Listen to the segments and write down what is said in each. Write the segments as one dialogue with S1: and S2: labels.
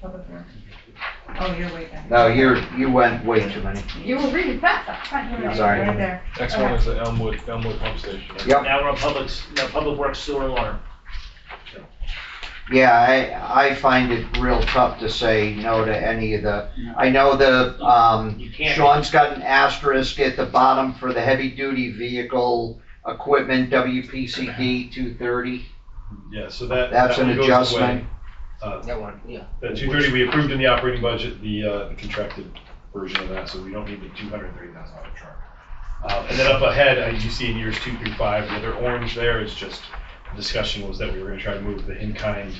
S1: Public works. Oh, you're way back.
S2: No, you're, you went way too many.
S1: You were reading fast, I can't hear you.
S2: Sorry.
S1: Right there.
S3: Next one is the Elmwood, Elmwood pump station.
S2: Yep.
S4: Now we're on public, s- no, public works sewer alarm.
S2: Yeah, I, I find it real tough to say no to any of the, I know the, um,
S4: You can't.
S2: Sean's got an asterisk at the bottom for the heavy-duty vehicle equipment, WPCD two thirty.
S3: Yeah, so that.
S2: That's
S3: that
S2: an
S3: one goes
S2: adjustment.
S3: away. Uh,
S5: That one, yeah.
S3: That two thirty, we approved in the operating budget, the, uh, the contracted version of that, so we don't need the two hundred and thirty thousand dollar truck. Uh, and then up ahead, as you see in years two through five, the other orange there is just, the discussion was that we were gonna try to move the in-kind.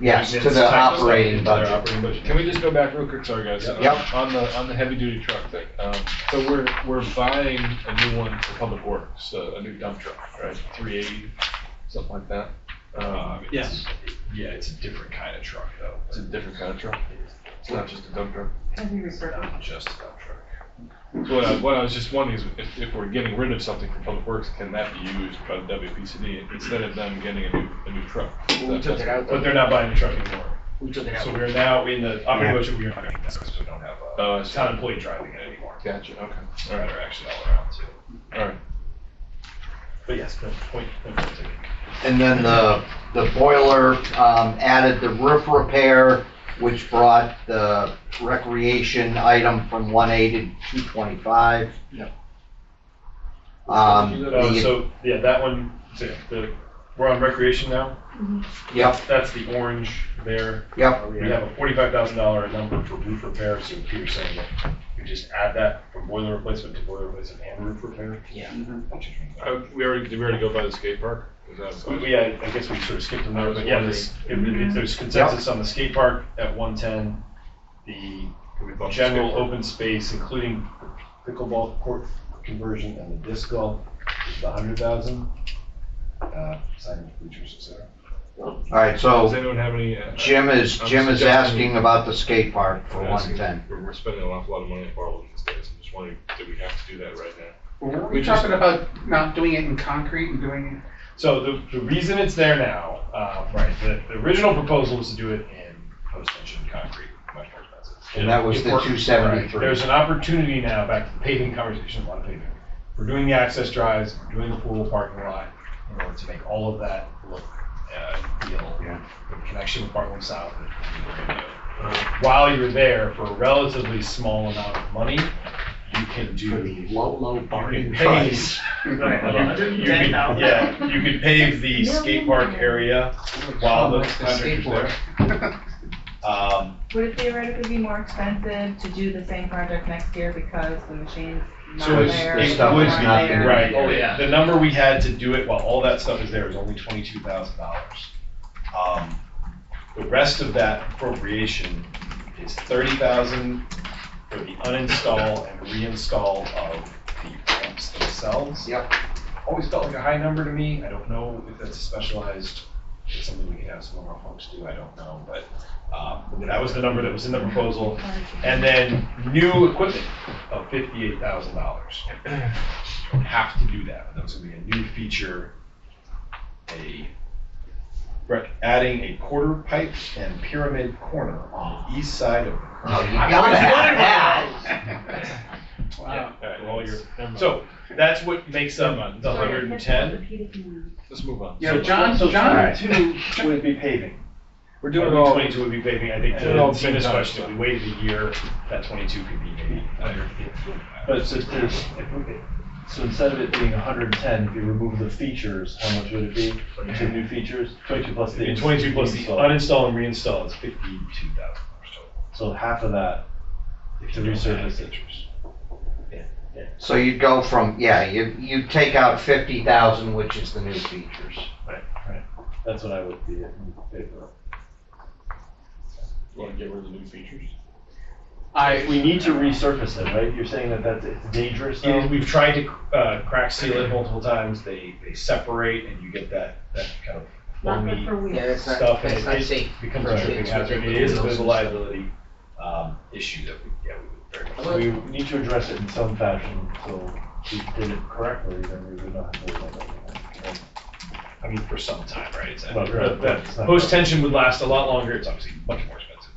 S2: Yes, to
S3: maintenance
S2: the
S3: type stuff
S2: operating
S3: into their
S2: budget.
S3: operating budget.
S6: Can we just go back real quick, sorry guys?
S2: Yep.
S6: On the, on the heavy duty truck thing, um, so we're, we're buying a new one for public works, uh, a, a new dump truck, right? Three eighty, something like that.
S3: Uh,
S6: Um,
S3: it's- Yeah, it's a different kind of truck though.
S6: It's a different kind of truck. It's not just a dump truck.
S1: I think we broke it.
S3: Not just a dump truck.
S6: So What I, what I was just wondering is if, if we're getting rid of something from public works, can that be used by the WPCD instead of them getting a new, a new truck?
S5: We took it out,
S3: But
S5: though.
S3: they're not buying a truck anymore.
S5: we took it
S3: So
S5: out.
S3: we're now in the operating budget, we are not, because we don't have,
S6: Oh,
S3: uh,
S6: I see.
S3: town employee driving it anymore.
S6: Gotcha, okay,
S3: All
S6: all
S3: right,
S6: right,
S3: they're actually all around too.
S6: all right.
S3: But yes, no, point, point well taken.
S2: And then the, the boiler, um, added the roof repair, which brought the recreation item from one eighty to two twenty-five.
S5: Yep.
S2: Um,
S3: Uh,
S2: the,
S3: so, yeah, that one, so, the, we're on recreation now.
S2: yep,
S3: That's the orange there.
S2: yep,
S3: We have a forty-five thousand dollar number for roof repair, so Peter's saying that we just add that from boiler replacement to boiler replacement and roof repair. Mm-hmm.
S5: Yeah.
S6: Uh, we already, did we already go by the skate park? Is that-
S3: We- Yeah, I guess we sort of skipped them there, but yeah, this, if, if there's consensus on the skate park at one ten, the
S6: Can we bump the skate
S3: general
S6: park?
S3: open space, including the pickleball court conversion and the disc golf, is the hundred thousand. Uh, sign features, et cetera.
S2: alright,
S6: Does
S2: so
S6: anyone have any? uh,
S2: Jim is,
S6: I'm
S2: Jim is
S6: suggesting-
S2: asking about the skate park for
S6: I'm asking-
S2: one ten.
S6: We're, we're spending an awful lot of money on Bartlett these days, I'm just wondering, do we have to do that right now?
S7: Were
S6: We
S7: we
S6: just-
S7: talking about not doing it in concrete and doing
S3: So the, the reason it's there now, uh, right, the, the original proposal was to do it in post-tension concrete, much more expensive.
S2: And that was
S3: It
S2: the
S3: worked,
S2: 273.
S3: right. There's an opportunity now, back to the paving conversation, a lot of paving. We're doing the access drives, we're doing the pool parking lot, in order to make all of that look, uh, feel,
S2: Yeah.
S3: in connection with Bartlett South. and what we're gonna do. While you're there, for a relatively small amount of money, you can do.
S2: low, low
S3: bargain price.
S2: price.
S3: Uh,
S5: Ten
S3: you could-
S5: thousand.
S3: Yeah, you could pave the skate park area
S7: it?
S3: while the
S7: Like
S3: contractor's
S7: skateboard.
S3: there. Um,
S1: Would it theoretically be more expensive to do the same project next year because the machine's not
S3: So it's,
S1: there?
S3: it
S2: stuff
S3: would
S2: is
S3: be,
S2: not there.
S3: right,
S5: Oh, yeah.
S3: the number we had to do it while all that stuff is there is only twenty-two thousand dollars. Um, the rest of that appropriation is thirty thousand for the uninstall and reinstall of the ramps themselves.
S2: Yep.
S3: Always felt like a high number to me, I don't know if that's specialized, it's something we can have some of our folks do, I don't know, but, um, that was the number that was in the proposal. And then new equipment of fifty-eight thousand dollars. You don't have to do that, but that was gonna be a new feature, a, rec- adding a quarter pipe and pyramid corner on the east side of.
S2: Oh, you gotta have that.
S6: Yeah,
S7: Wow.
S6: all right, well, you're- never mind.
S3: So, that's what makes up the hundred and ten.
S6: Let's move on.
S7: Yeah, John, John
S2: Alright.
S7: too,
S3: Would be paving.
S6: We're
S3: Doing
S6: doing it all,
S3: Twenty-two would be paving, I think,
S6: Do it all
S3: to
S6: at the
S3: see
S6: same
S3: this
S6: time.
S3: question, if we waited a year, that twenty-two could be maybe under.
S8: But it's just, there's, if we- so instead of it being hundred and ten, if you remove the features, how much would it be? Two new features, twenty-two plus the.
S3: And twenty-two plus the
S8: install.
S3: uninstall and reinstall is fifty-two thousand dollars total.
S8: So half of that,
S3: If
S8: to
S3: you don't have
S8: resurface it.
S3: features.
S2: So you'd go from, yeah, you, you take out fifty thousand, which is the new features.
S8: that's what I would be in favor of.
S6: you wanna get rid of the new features?
S7: I,
S8: We need to resurface it, right? You're saying that that's it's dangerous
S3: It is-
S8: now?
S3: we've tried to, uh, crack seal it multiple times, they, they separate and you get that, that kind of foamy
S5: Yeah, that's not,
S3: stuff. and
S5: that's
S3: it-
S5: not
S3: it
S5: safe.
S3: Becomes
S8: Right.
S3: a tripping
S5: It's what
S3: hazard,
S5: they
S3: it
S5: put
S3: is a
S5: in
S3: bit of a
S5: those-
S3: liability, um, issue that we, yeah, we would very much.
S8: So We need to address it in some fashion, so if we did it correctly, then we would not have to worry about that.
S3: I mean, for some time, right? It's,
S8: Well, right.
S3: that, post tension would last a lot longer. It's obviously much more expensive.